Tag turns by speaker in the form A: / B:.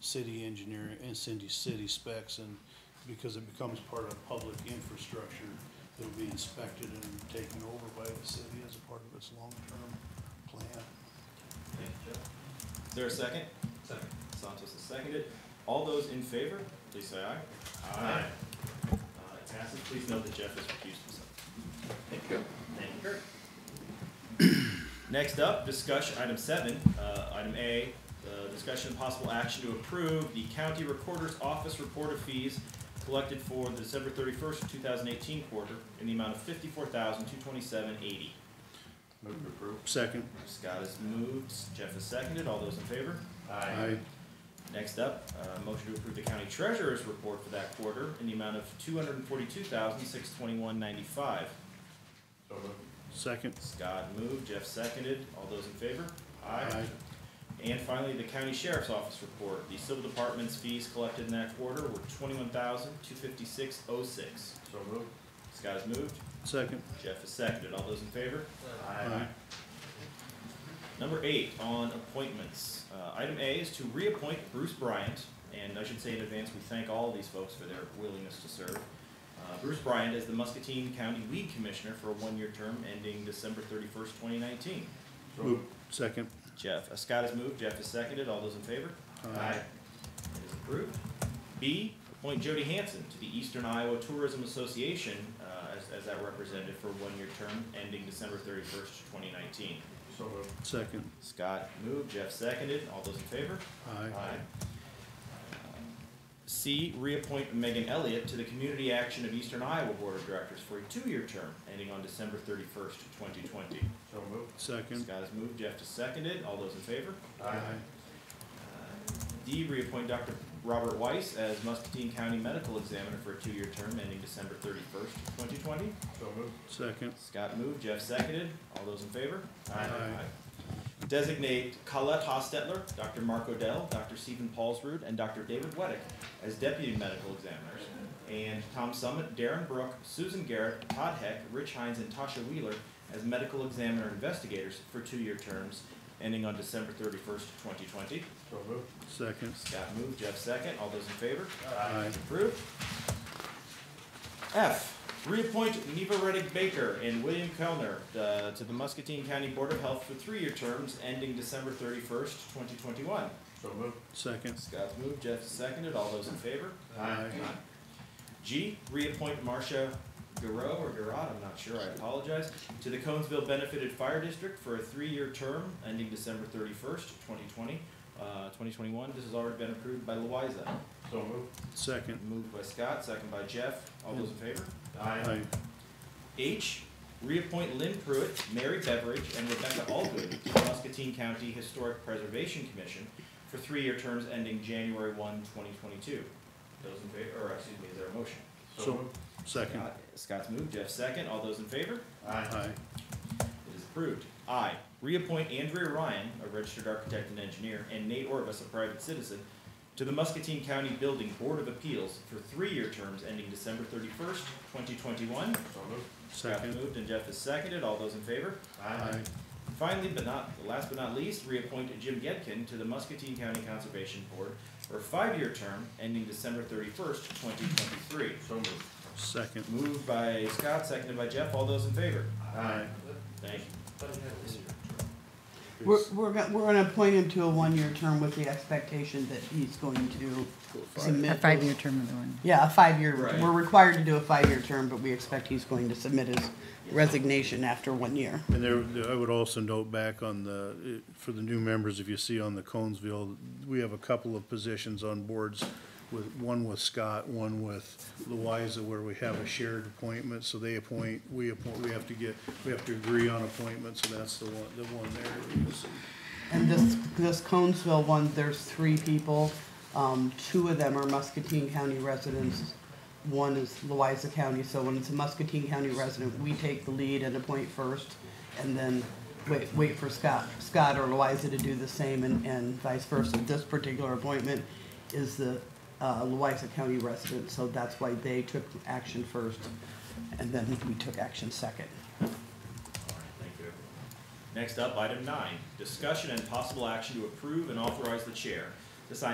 A: city engineer and city, city specs and because it becomes part of public infrastructure, it'll be inspected and taken over by the city as a part of its long-term plan.
B: Thank you, Jeff. Is there a second? Second. Santos is seconded. All those in favor, please say aye. Aye. Uh, it passes. Please note that Jeff has recused himself. Thank you. Thank you, Kurt. Next up, discussion, item seven, uh, item A, uh, discussion and possible action to approve the county recorder's office report of fees collected for the December thirty-first, two thousand eighteen quarter in the amount of fifty-four thousand, two twenty-seven, eighty. Move to approve.
A: Second.
B: Scott has moved, Jeff is seconded, all those in favor?
A: Aye.
B: Next up, uh, motion to approve the county treasurer's report for that quarter in the amount of two hundred and forty-two thousand, six twenty-one ninety-five.
A: Second.
B: Scott moved, Jeff seconded, all those in favor?
A: Aye.
B: And finally, the county sheriff's office report, the civil department's fees collected in that quarter were twenty-one thousand, two fifty-six oh six.
C: So moved.
B: Scott has moved,
A: Second.
B: Jeff has seconded, all those in favor?
A: Aye.
B: Number eight on appointments. Uh, item A is to reappoint Bruce Bryant, and I should say in advance, we thank all of these folks for their willingness to serve. Uh, Bruce Bryant as the Muscatine County Weed Commissioner for a one-year term ending December thirty-first, twenty nineteen.
A: Move. Second.
B: Jeff, uh, Scott has moved, Jeff has seconded, all those in favor? It is approved. B, appoint Jody Hanson to the Eastern Iowa Tourism Association, uh, as, as that representative for a one-year term ending December thirty-first, twenty nineteen.
C: So moved.
A: Second.
B: Scott moved, Jeff seconded, all those in favor?
A: Aye.
B: C, reappoint Megan Elliott to the Community Action of Eastern Iowa Board of Directors for a two-year term ending on December thirty-first, twenty twenty.
C: So moved.
A: Second.
B: Scott has moved, Jeff has seconded, all those in favor?
A: Aye.
B: Uh, D, reappoint Dr. Robert Weiss as Muscatine County Medical Examiner for a two-year term ending December thirty-first, twenty twenty.
C: So moved.
A: Second.
B: Scott moved, Jeff seconded, all those in favor?
C: Aye.
B: Aye. Designate Colette Hostetler, Dr. Mark Odell, Dr. Stephen Paulsrud, and Dr. David Weddick as deputy medical examiners, and Tom Summit, Darren Brook, Susan Garrett, Todd Heck, Rich Hines, and Tasha Wheeler as medical examiner investigators for two-year terms ending on December thirty-first, twenty twenty.
C: So moved.
A: Second.
B: Scott moved, Jeff second, all those in favor?
A: Aye.
B: Approved. F, reappoint Neva Reddick Baker and William Kellner uh, to the Muscatine County Board of Health for three-year terms ending December thirty-first, twenty twenty-one.
C: So moved.
A: Second.
B: Scott's moved, Jeff seconded, all those in favor?
A: Aye.
B: G, reappoint Marcia Garot or Garot, I'm not sure, I apologize, to the Conesville Benefited Fire District for a three-year term ending December thirty-first, twenty twenty, uh, twenty twenty-one. This has already been approved by Loiza.
C: So moved.
A: Second.
B: Moved by Scott, second by Jeff. All those in favor?
A: Aye.
B: H, reappoint Lynn Pruitt, Mary Beveridge, and Rebecca Allgood to the Muscatine County Historic Preservation Commission for three-year terms ending January 1, 2022. Those in favor, or excuse me, is there a motion?
C: So
A: So-
C: moved.
A: Second.
B: Scott- Scott's moved, Jeff second. All those in favor?
A: Aye.
B: It is approved. I, reappoint Andrea Ryan, a registered architect and engineer, and Nate Orvis, a private citizen, to the Muscatine County Building Board of Appeals for three-year terms ending December thirty-first, twenty twenty-one.
C: So moved.
B: Scott
A: Second.
B: moved and Jeff is seconded. All those in favor?
A: Aye.
B: Finally, but not, last but not least, reappoint Jim Gedkin to the Muscatine County Conservation Board for a five-year term ending December thirty-first, twenty twenty-three.
C: So moved.
A: Second.
B: Moved by Scott, seconded by Jeff. All those in favor?
C: Aye.
B: Thank you.
D: We're, we're, go- we're gonna appoint him to a one-year term with the expectation that he's going to submit.
E: A five-year term of the one.
D: Yeah, a five-year,
B: Right.
D: we're required to do a five-year term, but we expect he's going to submit his resignation after one year.
A: And there- there, I would also note back on the, eh, for the new members, if you see on the Conesville, we have a couple of positions on boards with, one with Scott, one with Louisa, where we have a shared appointment, so they appoint, we appoint, we have to get, we have to agree on appointments, and that's the one, the one there. you see.
D: And this, this Conesville one, there's three people. Um, two of them are Muscatine County residents. One is Loiza County, so when it's a Muscatine County resident, we take the lead and appoint first and then wait, wait for Scott, Scott or Loiza to do the same and, and vice versa. This particular appointment is the, uh, Loiza County resident, so that's why they took action first and then we took action second.
B: All right, thank you, everyone. Next up, item nine, discussion and possible action to approve and authorize the chair to sign